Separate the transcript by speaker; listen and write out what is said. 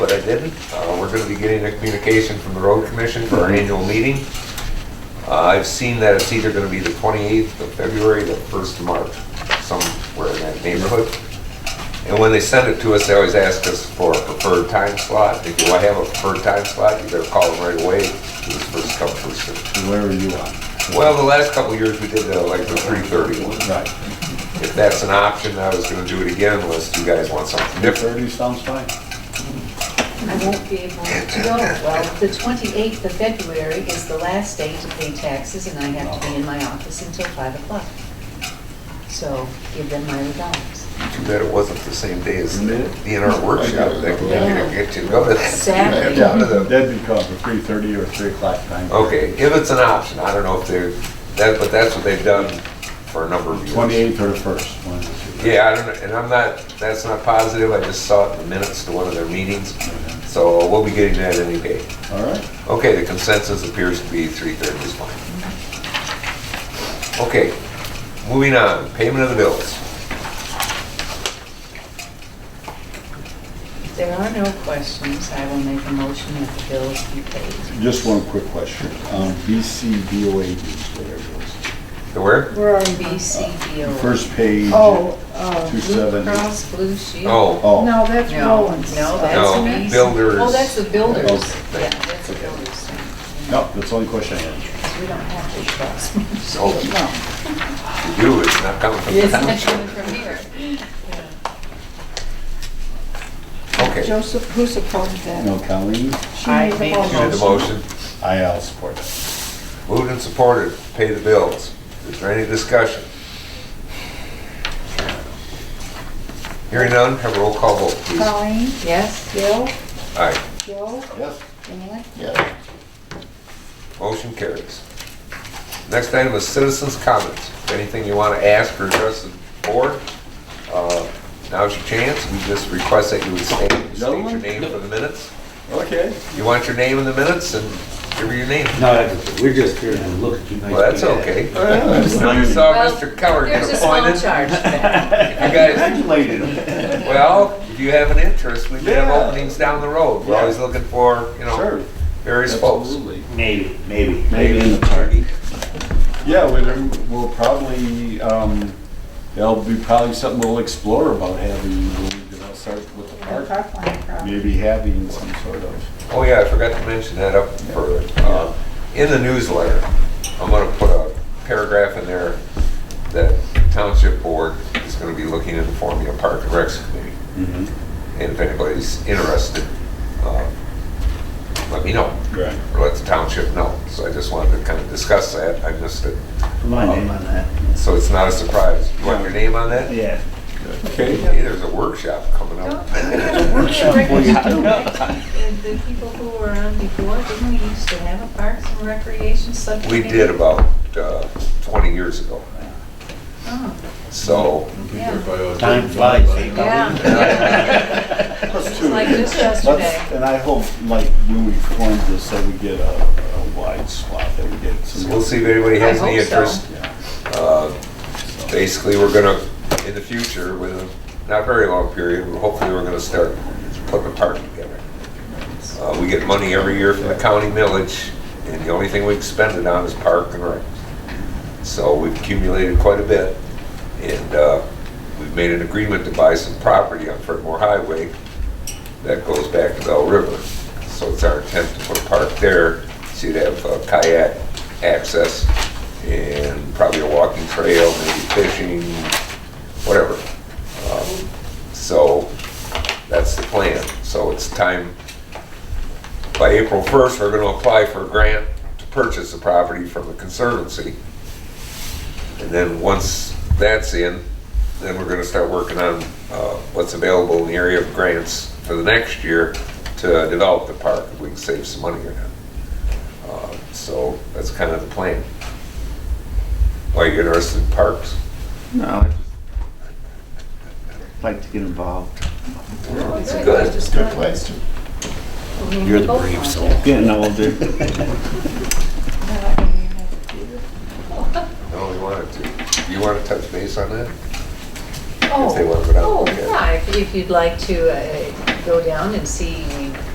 Speaker 1: but I didn't. Uh, We're going to be getting a communication from the road commission for our annual meeting. Uh, I've seen that it's either going to be the 28th of February, the 1st of March, somewhere in that neighborhood. And when they send it to us, they always ask us for a preferred time slot. They go, I have a preferred time slot, you better call them right away, who's first come, first served.
Speaker 2: Where are you on?
Speaker 1: Well, the last couple of years, we did uh, like the 3:30 one.
Speaker 2: Right.
Speaker 1: If that's an option, I was going to do it again unless you guys want something different.
Speaker 2: Thirty sounds fine.
Speaker 3: I won't be able to go. Well, the 28th of February is the last day to pay taxes, and I have to be in my office until 5 o'clock. So give them my regards.
Speaker 1: Too bad it wasn't the same day as the DNR workshop that we
Speaker 3: Yeah.
Speaker 1: didn't get to go to. that.
Speaker 3: Sadly.
Speaker 1: Down to the-
Speaker 2: That'd be called for three thirty or three o'clock time.
Speaker 1: Okay, if it's an option, I don't know if they're, that, but that's what they've done for a number of years.
Speaker 2: Twenty-eighth or the first, one of the two.
Speaker 1: Yeah, I don't, know, and I'm not, that's not positive, I just saw it in the minutes to one of their meetings, so we'll be getting that any day.
Speaker 2: All right.
Speaker 1: Okay, the consensus appears to be three-thirds is fine. Okay, moving on, payment of the bills.
Speaker 3: If there are no questions, I will make a motion that the bills be paid.
Speaker 2: Just one quick question. Um, BCBOAD, whatever it is.
Speaker 1: The where?
Speaker 4: Where are you?
Speaker 2: The
Speaker 3: BCBO.
Speaker 2: First page.
Speaker 4: Oh, uh,
Speaker 2: Two
Speaker 4: Blue
Speaker 2: seven.
Speaker 4: Cross.
Speaker 3: Blue Shield.
Speaker 1: Oh,
Speaker 2: Oh,
Speaker 4: No, that's
Speaker 3: No,
Speaker 4: Rollins.
Speaker 3: no,
Speaker 1: No,
Speaker 3: that's me.
Speaker 1: builders.
Speaker 3: Oh, that's the builders.
Speaker 2: Okay.
Speaker 3: Yeah, that's the builders.
Speaker 2: no, that's the only question I had.
Speaker 3: We don't have to cross.
Speaker 1: so
Speaker 4: No.
Speaker 1: oh, you, it's not coming from the
Speaker 3: It's not coming
Speaker 1: township.
Speaker 3: from here.
Speaker 1: Okay,
Speaker 4: Joseph, who supported that?
Speaker 2: No, Colleen,
Speaker 4: She
Speaker 3: I
Speaker 4: made the
Speaker 3: made
Speaker 1: you did the motion,
Speaker 2: I, I'll support that.
Speaker 1: moved and supported, pay the bills. Is there any discussion? Hearing none, have a roll call vote, please. All
Speaker 4: Colleen,
Speaker 3: Yes?
Speaker 4: Bill,
Speaker 1: right,
Speaker 4: Joe,
Speaker 2: Yes.
Speaker 4: Dan.
Speaker 2: Yes.
Speaker 1: motion carries. Next item is citizens' comments. Anything you want to ask or address the board, uh, now's your chance. We just request that you would state state your
Speaker 2: Gentlemen?
Speaker 1: name for the minutes.
Speaker 2: Okay.
Speaker 1: You want your name in the minutes and give her your name.
Speaker 5: No, that's- we're just here to look at you nice.
Speaker 1: Well, that's
Speaker 5: people.
Speaker 1: okay.
Speaker 2: All right.
Speaker 1: I saw Mr. Coward
Speaker 3: There's
Speaker 1: get
Speaker 3: a small
Speaker 1: appointed.
Speaker 3: charge for that.
Speaker 1: You guys,
Speaker 2: Congratulated him.
Speaker 1: well, if you have an interest, we may have
Speaker 2: Yeah.
Speaker 1: openings down the road. We're
Speaker 2: Yeah.
Speaker 1: always looking for, you know,
Speaker 2: Sure.
Speaker 1: various folks.
Speaker 2: Absolutely.
Speaker 5: Maybe, maybe.
Speaker 2: Maybe.
Speaker 5: in the party.
Speaker 2: Yeah, we'll, we'll probably, um, there'll be probably something we'll explore about having, we'll start with the
Speaker 4: The
Speaker 2: park.
Speaker 4: Parkland problem.
Speaker 2: Maybe having some sort of,
Speaker 1: Oh, yeah, I forgot to mention that up for, uh, in the newsletter, I'm gonna put a paragraph in there that Township Board is gonna be looking into forming a park and recs committee.
Speaker 2: Mm-hmm.
Speaker 1: And if anybody's interested, uh, let me know.
Speaker 2: Right.
Speaker 1: or let the township know. So I just wanted to kind of discuss that, I missed it.
Speaker 5: Put my name on that.
Speaker 1: So it's not a surprise. You want your name on that?
Speaker 5: Yeah.
Speaker 2: okay,
Speaker 1: Hey, there's a workshop coming up.
Speaker 3: And The people who were on before, didn't we used to have a parks and recreation
Speaker 1: We
Speaker 3: subcommittee?
Speaker 1: did about uh, 20 years ago.
Speaker 3: Oh,
Speaker 1: So,
Speaker 3: yeah.
Speaker 5: Time flies. eh?
Speaker 3: Yeah.
Speaker 2: Let's
Speaker 3: It's
Speaker 2: do it.
Speaker 3: like just yesterday.
Speaker 2: Let's- And I hope, like, when we form this, that we get a, a wide swath, that we get
Speaker 1: so
Speaker 2: some.
Speaker 1: we'll see if anybody has
Speaker 3: I
Speaker 1: any
Speaker 3: hope so.
Speaker 1: interest.
Speaker 2: Yeah.
Speaker 1: Uh, Basically, we're gonna, in the future, with a not very long period, but hopefully we're gonna start putting a park together. Uh, We get money every year from the county millage, and the only thing we can spend it on is park and rec. So we've accumulated quite a bit, and uh, we've made an agreement to buy some property on Fredmore Highway that goes back to Bell River. So it's our intent to put a park there, so you'd have uh, kayak access and probably a walking trail, maybe fishing, whatever. Um, So that's the plan. So it's time, by April 1st, we're going to apply for a grant to purchase the property from the Conservancy. And then, once that's in, then we're gonna start working on uh, what's available in the area of grants for the next year to develop the park, if we can save some money or not. Uh, So that's kind of the plan. Why you interested in parks?
Speaker 6: No, I just like to get involved.
Speaker 1: It's good.
Speaker 3: Good
Speaker 2: place to.
Speaker 3: You're the brave soul.
Speaker 6: Getting older.
Speaker 1: No, we wanted to. You wanna touch base on that?
Speaker 3: Oh,
Speaker 1: they want to go down,
Speaker 3: oh,
Speaker 1: okay.
Speaker 3: yeah, if- if you'd like to uh, go down and see